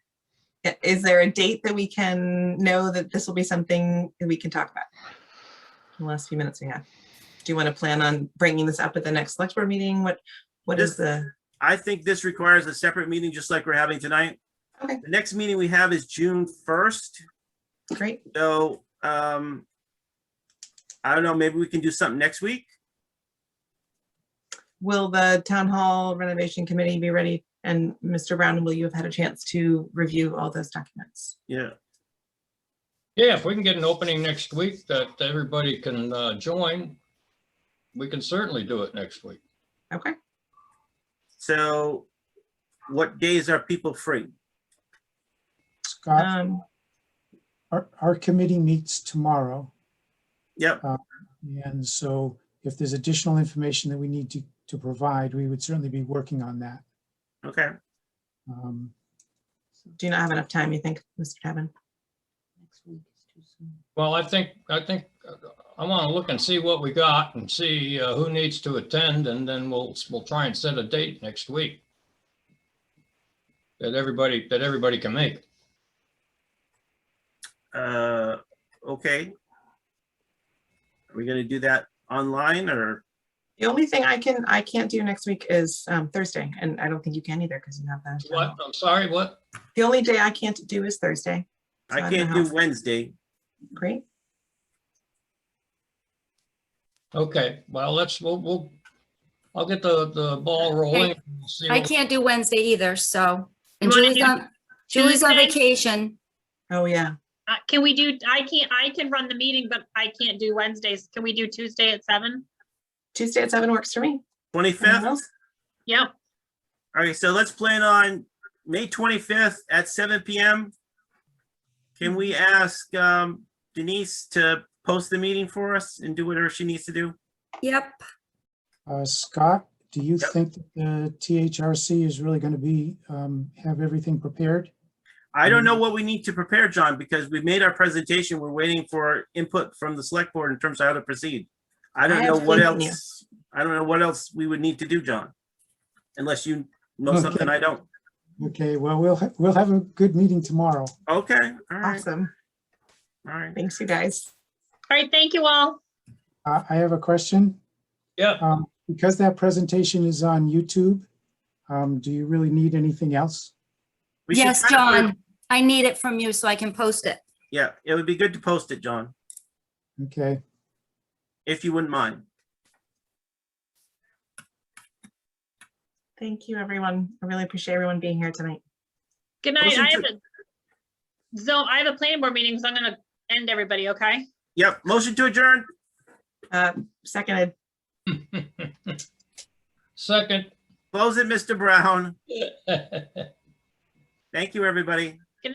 i- is there a date that we can know that this will be something that we can talk about? In the last few minutes we have. Do you want to plan on bringing this up at the next select board meeting? What, what is the, I think this requires a separate meeting, just like we're having tonight. Okay. The next meeting we have is June first, great, so, um, I don't know, maybe we can do something next week? will the town hall renovation committee be ready? And Mr. Brown, will you have had a chance to review all those documents? Yeah, Yeah, if we can get an opening next week that everybody can uh, join, we can certainly do it next week. Okay, so what days are people free? Scott, um, our, our committee meets tomorrow. Yep, And so if there's additional information that we need to, to provide, we would certainly be working on that. okay. Um, do you not have enough time, you think, Mr. Tevin? Next week is too soon. Well, I think, I think, uh, I want to look and see what we got and see uh, who needs to attend, and then we'll, we'll try and set a date next week. That everybody, that everybody can make. Uh, okay. Are we gonna do that online or, The only thing I can, I can't do next week is um, Thursday, and I don't think you can either because you have that. What, I'm sorry, what? The only day I can't do is Thursday. So I don't can't know do how- Wednesday. Great, Okay, well, let's, we'll, we'll, I'll get the, the ball rolling. We'll see I what- can't do Wednesday either, so. You And wanna Julie's do on, Julie's on Tuesday? vacation. oh yeah, Uh, can we do, I can't, I can run the meeting, but I can't do Wednesdays. Can we do Tuesday at seven? Tuesday at seven works for me. Anyone Twenty-fifth? else? Yep, All right, so let's plan on May twenty-fifth at seven PM. Can we ask um, Denise to post the meeting for us and do whatever she needs to do? Yep, uh, Scott, do you Yep. think that the THRC is really going to be, um, have everything prepared? I don't know what we need to prepare, John, because we've made our presentation. We're waiting for input from the select board in terms of how to proceed. I I don't know have what faith in you. else, I don't know what else we would need to do, John. Unless you know Okay. something I don't. Okay, well, we'll, ha- we'll have a good meeting tomorrow. Okay, all right, Awesome. all right. Thanks, you guys. all right, thank you all. Uh, I, I have a question. Yeah, Um, because that presentation is on YouTube, um, do you really need anything else? We should yes, try to put- John, I need it from you so I can post it. Yeah, it would be good to post it, John, Okay. if you wouldn't mind. Thank you, everyone. I really appreciate everyone being here tonight. Good night. Listen I have to- a, so I have a planning board meeting, so I'm gonna end everybody, okay? Yep, motion to adjourn. Uh, Seconded, second. Close it, Mr. Brown. Thank you, everybody.